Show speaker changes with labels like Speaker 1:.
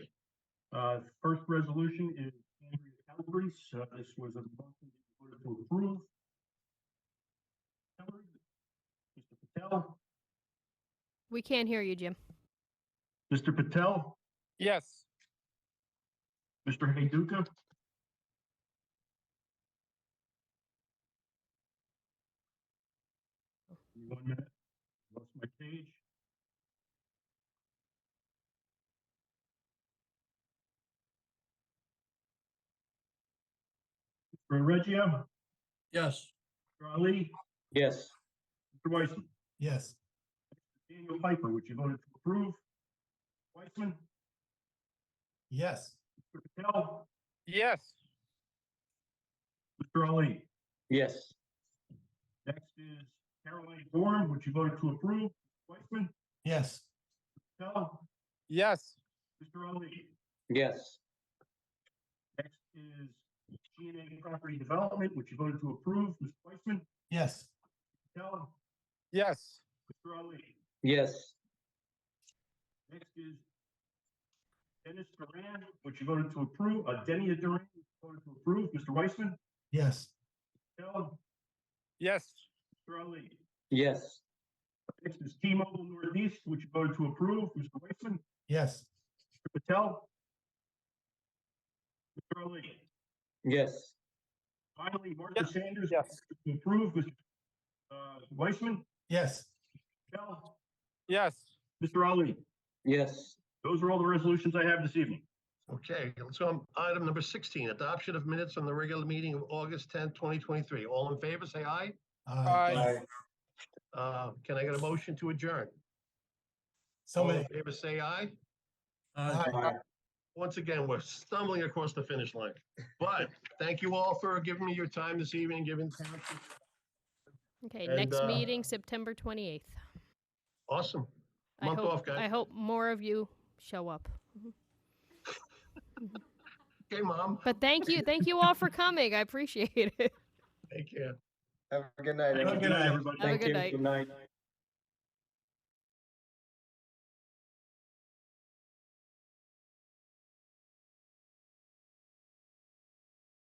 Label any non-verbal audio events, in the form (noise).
Speaker 1: Uh, first resolution is Andrea Calabrese. Uh, this was a motion that you voted to approve. Mr. Patel,
Speaker 2: We can't hear you, Jim.
Speaker 1: Mr. Patel,
Speaker 3: Yes.
Speaker 1: Mr. Heyduka, One minute, lost my page. Mr. Reggio,
Speaker 4: Yes.
Speaker 1: Mr. Ali,
Speaker 3: Yes.
Speaker 1: Mr. Weissman.
Speaker 4: Yes.
Speaker 1: Daniel Piper, which you voted to approve. Weissman,
Speaker 4: Yes.
Speaker 1: Mr. Patel,
Speaker 3: Yes.
Speaker 1: Mr. Ali.
Speaker 3: Yes.
Speaker 1: Next is Caroline Dorn, which you voted to approve. Weissman,
Speaker 4: Yes.
Speaker 1: Patel,
Speaker 3: Yes.
Speaker 1: Mr. Ali.
Speaker 3: Yes.
Speaker 1: Next is G and A Property Development, which you voted to approve. Mr. Weissman,
Speaker 4: Yes.
Speaker 1: Patel,
Speaker 3: Yes.
Speaker 1: Mr. Ali.
Speaker 3: Yes.
Speaker 1: Next is Dennis Duran, which you voted to approve. Uh, Denny Duran, which you voted to approve. Mr. Weissman,
Speaker 4: Yes.
Speaker 1: Patel,
Speaker 3: Yes.
Speaker 1: Mr. Ali.
Speaker 3: Yes.
Speaker 1: Next is T-Mobile Northeast, which you voted to approve. Mr. Weissman,
Speaker 4: Yes.
Speaker 1: Mr. Patel? Mr. Ali?
Speaker 3: Yes.
Speaker 1: Finally, Martha Sanders?
Speaker 3: Yes.
Speaker 1: To approve, Mr. uh, Weissman,
Speaker 4: Yes.
Speaker 1: Patel,
Speaker 3: Yes.
Speaker 1: Mr. Ali?
Speaker 3: Yes.
Speaker 1: Those are all the resolutions I have this evening.
Speaker 5: Okay, let's go on item number sixteen, adoption of minutes on the regular meeting of August tenth, twenty twenty-three. All in favor, say aye.
Speaker 3: Aye.
Speaker 5: Uh, can I get a motion to adjourn?
Speaker 4: So
Speaker 5: All
Speaker 4: many.
Speaker 5: in favor, say aye.
Speaker 4: Aye.
Speaker 5: Once again, we're stumbling across the finish line. But thank you all for giving me your time this evening, giving township.
Speaker 2: Okay,
Speaker 5: And,
Speaker 2: next
Speaker 5: uh,
Speaker 2: meeting, September 28th.
Speaker 5: Awesome.
Speaker 2: I
Speaker 5: Month
Speaker 2: hope-
Speaker 5: off, guys.
Speaker 2: I hope more of you show up. Mm-hmm.
Speaker 5: (laughs) Okay, mom,
Speaker 2: But thank you, thank you all for coming. I appreciate it.
Speaker 5: take care.
Speaker 6: Have a good night.
Speaker 1: Thank you,
Speaker 4: good night,
Speaker 1: everybody.
Speaker 2: Have a
Speaker 6: Thank
Speaker 2: good
Speaker 6: you.
Speaker 2: night.
Speaker 6: Good night.